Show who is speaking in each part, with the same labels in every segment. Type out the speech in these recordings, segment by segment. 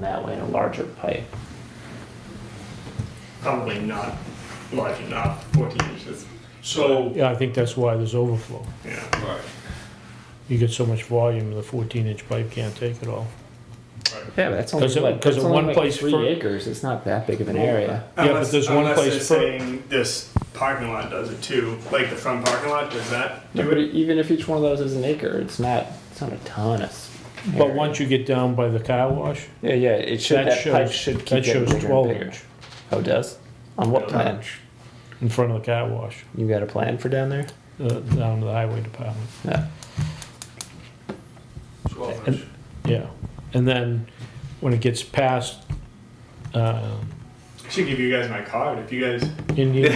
Speaker 1: that way in a larger pipe.
Speaker 2: probably not large enough, 14 inches.
Speaker 3: So,
Speaker 4: Yeah, I think that's why there's overflow.
Speaker 2: Yeah,
Speaker 3: right,
Speaker 4: You get so much volume, the fourteen inch pipe can't take it all.
Speaker 1: Yeah, but that's only
Speaker 4: 'Cause it-
Speaker 1: like,
Speaker 4: 'cause
Speaker 1: that's
Speaker 4: in
Speaker 1: only
Speaker 4: one
Speaker 1: like
Speaker 4: place
Speaker 1: three
Speaker 4: for-
Speaker 1: acres. It's not that big of an area.
Speaker 4: but
Speaker 2: Unless-
Speaker 4: there's one
Speaker 2: unless
Speaker 4: place
Speaker 2: they're
Speaker 4: for-
Speaker 2: saying this parking lot does it too, like the front parking lot, does that
Speaker 1: No,
Speaker 2: do
Speaker 1: but
Speaker 2: it?
Speaker 1: even if each one of those is an acre, it's not. It's not a ton of. s-
Speaker 4: But
Speaker 1: area.
Speaker 4: once you get down by the car wash,
Speaker 1: Yeah, yeah. It should. That,
Speaker 4: that
Speaker 1: pipe
Speaker 4: shows,
Speaker 1: should keep
Speaker 4: that
Speaker 1: getting
Speaker 4: shows
Speaker 1: bigger and
Speaker 4: twelve
Speaker 1: bigger.
Speaker 4: inch
Speaker 1: Oh, it does. On what
Speaker 2: Yeah.
Speaker 1: plan?
Speaker 4: in front of the car wash,
Speaker 1: You got a plan for down there?
Speaker 4: uh, down to the highway department.
Speaker 1: Yeah.
Speaker 3: twelve
Speaker 4: And-
Speaker 3: inch.
Speaker 4: Yeah, and then when it gets past, um,
Speaker 2: Should give you guys my card if you guys.
Speaker 4: Indian,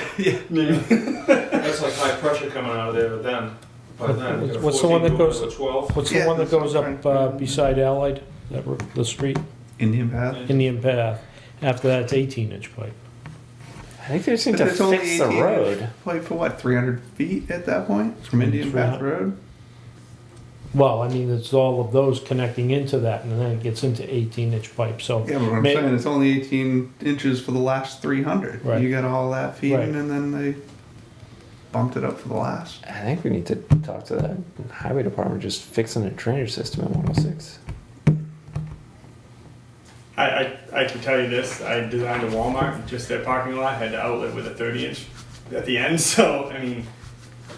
Speaker 3: That's like high pressure coming out of there, but then, by then. you got a
Speaker 4: What's the one that
Speaker 3: 14 going
Speaker 4: goes-
Speaker 3: to a Twelve,
Speaker 4: what's the
Speaker 5: Yeah,
Speaker 4: one that
Speaker 5: that's what
Speaker 4: goes
Speaker 5: I'm
Speaker 4: up,
Speaker 5: trying
Speaker 4: uh,
Speaker 5: to-
Speaker 4: beside Allied? That, r- the street,
Speaker 5: Indian Path?
Speaker 4: Indian Path, after that, it's eighteen inch pipe.
Speaker 1: I think they just need to
Speaker 5: It's only
Speaker 1: fix the
Speaker 5: 18
Speaker 1: road.
Speaker 5: Like for what, 300 feet at that point from Indian
Speaker 4: Three
Speaker 5: Path Road?
Speaker 4: Well, I mean, it's all of those connecting into that, and then it gets into eighteen inch pipe, so.
Speaker 5: Yeah, but what I'm
Speaker 4: may-
Speaker 5: saying it's only 18 inches for the last 300.
Speaker 4: Right.
Speaker 5: You got all that feeding,
Speaker 4: Right.
Speaker 5: and then they bumped it up for the last.
Speaker 1: I think we need to talk to the highway department just fixing the drainage system in 106.
Speaker 2: I, I, I can tell you this I designed a Walmart, and just their parking lot had an outlet with a 30 inch at the end, so I mean,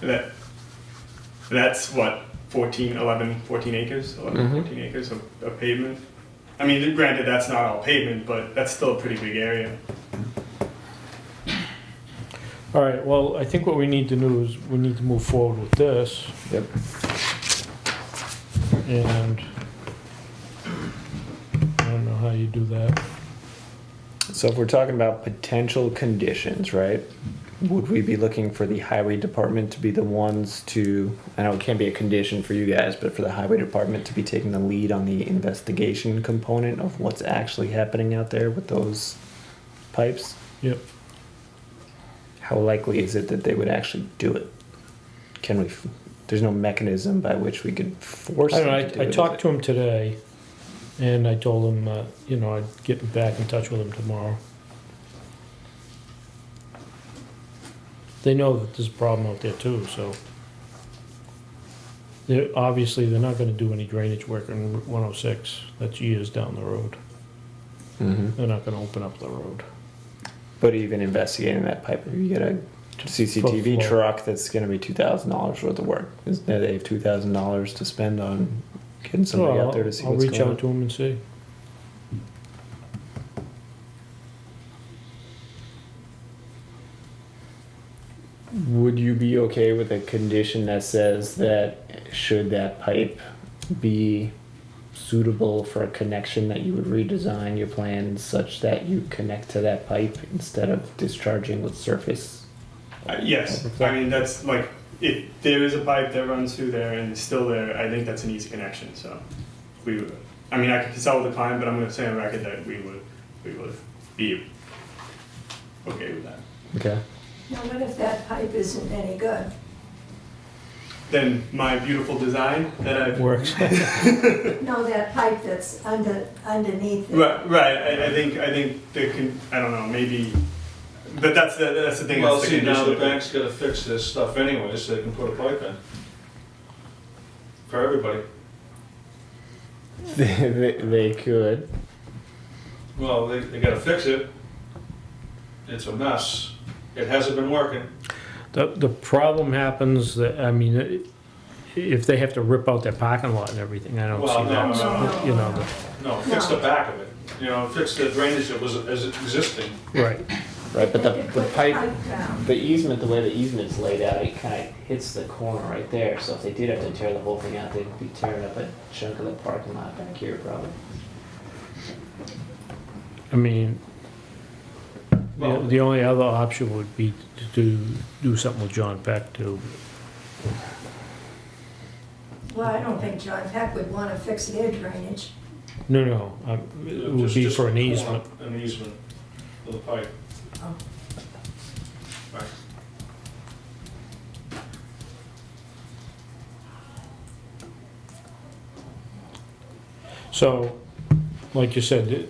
Speaker 2: that that's what, 14, 11, 14 acres? 11,
Speaker 1: Mhm.
Speaker 2: 14 acres of, of pavement? I mean, granted, that's not all pavement, but that's still a pretty big area.
Speaker 4: All right, well, I think what we need to do is, we need to move forward with this,
Speaker 1: Yep.
Speaker 4: and I don't know how you do that.
Speaker 1: So if we're talking about potential conditions, right? Would we be looking for the highway department to be the ones to, I know it can't be a condition for you guys, but for the highway department to be taking the lead on the investigation component of what's actually happening out there with those pipes?
Speaker 4: Yep.
Speaker 1: How likely is it that they would actually do it? Can we, f- there's no mechanism by which we could force
Speaker 4: I
Speaker 1: them
Speaker 4: don't
Speaker 1: to do
Speaker 4: know, I, I
Speaker 1: it, is
Speaker 4: talked
Speaker 1: it?
Speaker 4: to him today, and I told him, uh, you know, I'd get back in touch with him tomorrow. They know that there's a problem out there too, so. They're, obviously, they're not gonna do any drainage work on Route one oh six, that's years down the road,
Speaker 1: Mhm.
Speaker 4: they're not gonna open up the road.
Speaker 1: But even investigating that pipe, you get a CCTV
Speaker 4: Full flow.
Speaker 1: truck that's going to be two thousand dollars worth of work. Is now they have two thousand dollars to spend on getting somebody
Speaker 4: Well,
Speaker 1: out there to see
Speaker 4: I'll-
Speaker 1: what's
Speaker 4: I'll reach
Speaker 1: going
Speaker 4: out to him and see.
Speaker 1: on? Would you be okay with a condition that says that should that pipe be suitable for a connection, that you would redesign your plan such that you connect to that pipe instead of discharging with surface?
Speaker 2: Uh, Yes, I mean, that's like, if there is a pipe that runs through there and is still there, I think that's an easy connection, so. We, would- I mean, I could consult with the client, but I'm gonna say on record that we would, we would be okay with that.
Speaker 1: Okay.
Speaker 6: Now, what if that pipe isn't any good?
Speaker 2: Then my beautiful design that I've.
Speaker 4: Works.
Speaker 6: No, that pipe that's under, underneath it.
Speaker 2: Right, right, I, I think, I think the, con- I don't know, maybe, but that's the, that's the thing,
Speaker 3: well,
Speaker 2: that's the
Speaker 3: see, now the
Speaker 2: condition.
Speaker 3: bank's gotta fix this stuff anyway, so they can put a pipe in. For everybody,
Speaker 1: they, they- they could.
Speaker 3: well, they, they gotta fix it. It's a mess, it hasn't been working.
Speaker 4: The, the problem happens that, I mean, i- if they have to rip out their parking lot and everything, I don't
Speaker 3: Well,
Speaker 4: see
Speaker 3: no,
Speaker 4: that.
Speaker 3: no,
Speaker 6: No,
Speaker 4: You
Speaker 6: no,
Speaker 4: know,
Speaker 6: no.
Speaker 3: No, fix
Speaker 6: No.
Speaker 3: the back of it, you know, fix the drainage that was, as existing.
Speaker 4: Right.
Speaker 1: Right, but the,
Speaker 6: They could
Speaker 1: the
Speaker 6: put
Speaker 1: pipe,
Speaker 6: down.
Speaker 1: the easement, the way the easement's laid out, it kind of hits the corner right there, so if they did have to tear the whole thing out, they'd be tearing up a chunk of the parking lot back here probably.
Speaker 4: I mean, the,
Speaker 3: Well-
Speaker 4: the only other option would be to do, do something with John Peck to,
Speaker 6: Well, I don't think John Peck would want to fix their drainage.
Speaker 4: no, no, um, it would
Speaker 3: Just-
Speaker 4: be
Speaker 3: just
Speaker 4: for an
Speaker 3: a corner,
Speaker 4: easement.
Speaker 3: An easement for the pipe.
Speaker 6: Oh.
Speaker 3: Right.
Speaker 4: So like you said,